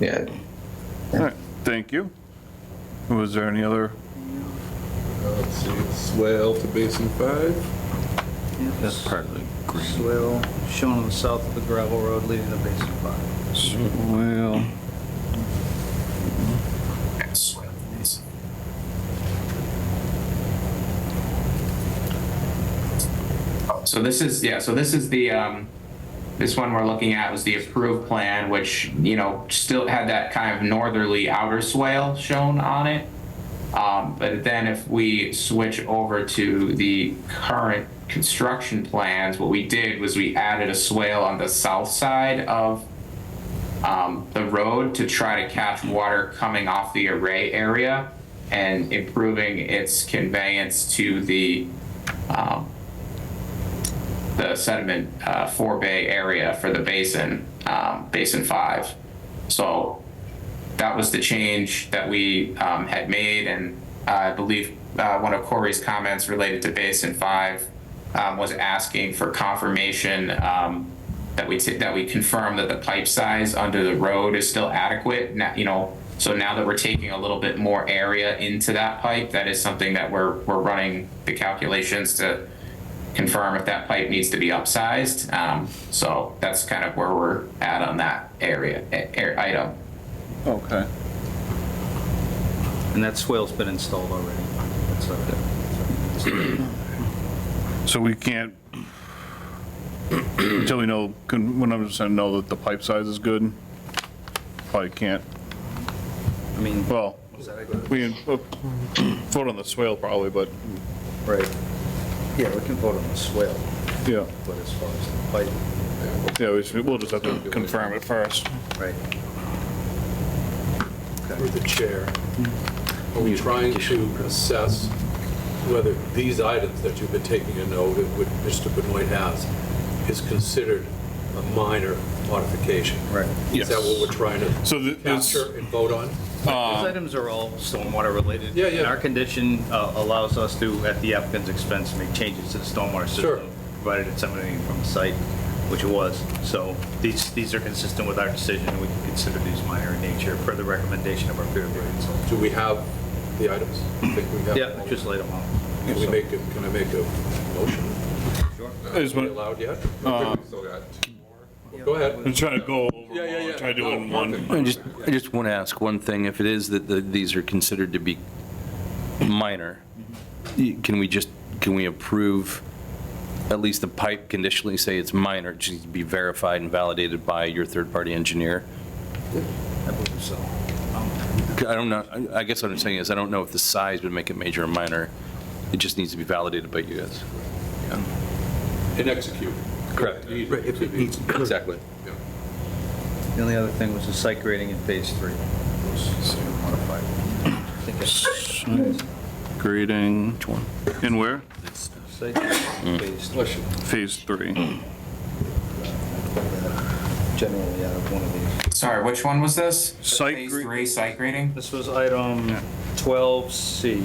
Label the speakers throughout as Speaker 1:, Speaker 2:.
Speaker 1: Yeah.
Speaker 2: All right, thank you. Was there any other,
Speaker 3: Let's see, it's swell to basin five.
Speaker 4: That's part of the green.
Speaker 5: Swale shown on the south of the gravel road leading to basin five.
Speaker 2: well,
Speaker 6: So this is, yeah, so this is the, um, this one we're looking at was the approved plan, which, you know, still had that kind of northerly outer swale shown on it. Um, but then if we switch over to the current construction plans, what we did was we added a swale on the south side of um, the road to try to catch water coming off the array area and improving its conveyance to the, um, the sediment uh, forebay area for the basin, um, basin five. So that was the change that we um, had made, and I believe uh, one of Corey's comments related to basin five um, was asking for confirmation um, that we ta- that we confirm that the pipe size under the road is still adequate. Now, you know, so now that we're taking a little bit more area into that pipe, that is something that we're we're running the calculations to confirm if that pipe needs to be upsized. Um, so that's kind of where we're at on that area, a- a- item.
Speaker 2: okay.
Speaker 5: And that swale's been installed already. That's okay.
Speaker 2: So we can't, until we know, can- when I'm just saying know that the pipe size is good, probably can't,
Speaker 5: I mean,
Speaker 2: well,
Speaker 5: is that a-
Speaker 2: we can uh, vote on the swale probably, but,
Speaker 5: right. Yeah, we can vote on the swale,
Speaker 2: yeah,
Speaker 5: but as far as the pipe,
Speaker 2: yeah, we should- we'll just have to confirm it first.
Speaker 5: right.
Speaker 3: Through the chair. Are we trying to assess whether these items that you've been taking a note of, which Mr. Benoit has, is considered a minor modification?
Speaker 5: Right.
Speaker 3: Is that what we're trying to
Speaker 2: So th- it's,
Speaker 3: capture and vote on?
Speaker 5: Those items are all stormwater related.
Speaker 3: Uh, Yeah, yeah.
Speaker 5: And our condition uh, allows us to, at the applicant's expense, make changes to the stormwater
Speaker 3: Sure.
Speaker 5: system, provided it's emanating from the site, which it was. So these, these are consistent with our decision, and we can consider these minor in nature per the recommendation of our peer review consultant.
Speaker 3: Do we have the items? I think we have them
Speaker 5: Yeah,
Speaker 3: all.
Speaker 5: just lay them out.
Speaker 3: Can we make, a- can I make a motion?
Speaker 2: is
Speaker 3: Are we
Speaker 2: what- Uh,
Speaker 3: allowed yet? Go
Speaker 2: I'm
Speaker 3: ahead.
Speaker 2: trying to go
Speaker 3: Yeah, yeah, yeah.
Speaker 2: over, try to do it in
Speaker 3: No,
Speaker 2: one.
Speaker 3: perfect.
Speaker 4: I just, I just want to ask one thing, if it is that the- these are considered to be minor, y- can we just, can we approve at least the pipe conditionally say it's minor, it just needs to be verified and validated by your third-party engineer?
Speaker 5: I believe so.
Speaker 4: I don't know, I- I guess what I'm saying is, I don't know if the size would make it major or minor, it just needs to be validated by you guys.
Speaker 3: And execute.
Speaker 4: Correct.
Speaker 3: If it needs.
Speaker 4: Exactly.
Speaker 3: Yeah.
Speaker 5: The only other thing was the site grading in phase three. Was modified. I think it's-
Speaker 2: Grading. Which one? And where?
Speaker 5: Site grading in phase three.
Speaker 3: Bless you.
Speaker 2: Phase three.
Speaker 5: generally out of one of these.
Speaker 6: Sorry, which one was this?
Speaker 2: Site
Speaker 6: Phase
Speaker 2: gre-
Speaker 6: three site grading?
Speaker 5: This was item 12C.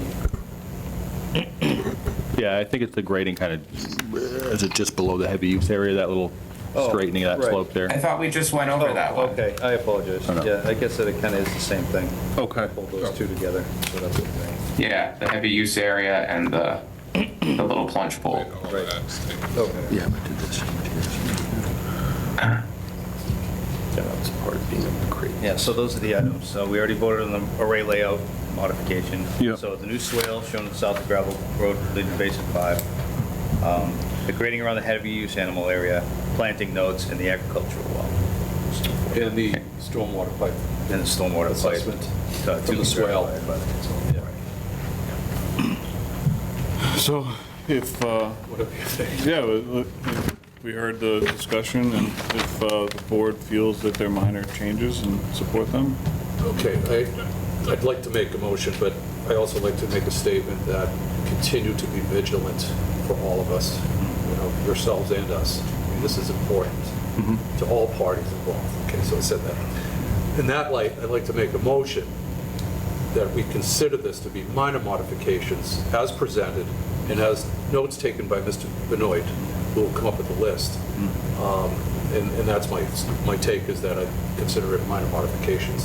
Speaker 7: Yeah, I think it's the grading kind of, is it just below the heavy use area, that little
Speaker 5: Oh,
Speaker 7: straightening of
Speaker 5: right.
Speaker 7: that slope
Speaker 6: I
Speaker 7: there?
Speaker 6: thought we just went
Speaker 2: Oh,
Speaker 6: over Oh, that one.
Speaker 5: Oh, Okay, I apologize.
Speaker 7: Oh, no.
Speaker 5: Yeah, I guess that it kind of is the same thing.
Speaker 2: Okay.
Speaker 5: Hold those two together. So that's what they-
Speaker 6: Yeah, the heavy use area and the, the little plunge pool.
Speaker 5: Okay.
Speaker 4: Yeah, I did this. That's part of being a creative.
Speaker 5: Yeah, so those are the items. So we already voted on the array layout modification.
Speaker 2: Yeah.
Speaker 5: So the new swale shown in south of gravel road leading to basin five. Um, The grading around the heavy use animal area, planting notes, and the agricultural well,
Speaker 3: And the stormwater pipe.
Speaker 5: and the stormwater pipe.
Speaker 3: Assessment
Speaker 5: uh, to
Speaker 3: from the
Speaker 5: be
Speaker 3: swale.
Speaker 5: verified by the consultant.
Speaker 2: So if, uh,
Speaker 3: Whatever you think.
Speaker 2: Yeah, we- we- we heard the discussion, and if uh, the board feels that they're minor changes and support them,
Speaker 3: Okay, I, I'd like to make a motion, but I also like to make a statement that continue to be vigilant for all of us, you know, yourselves and us. I mean, This is important to all parties involved. Okay, so I said that. In that light, I'd like to make a motion that we consider this to be minor modifications as presented and as notes taken by Mr. Benoit, who will come up with a list. Um, And, and that's my, my take is that I consider it minor modifications.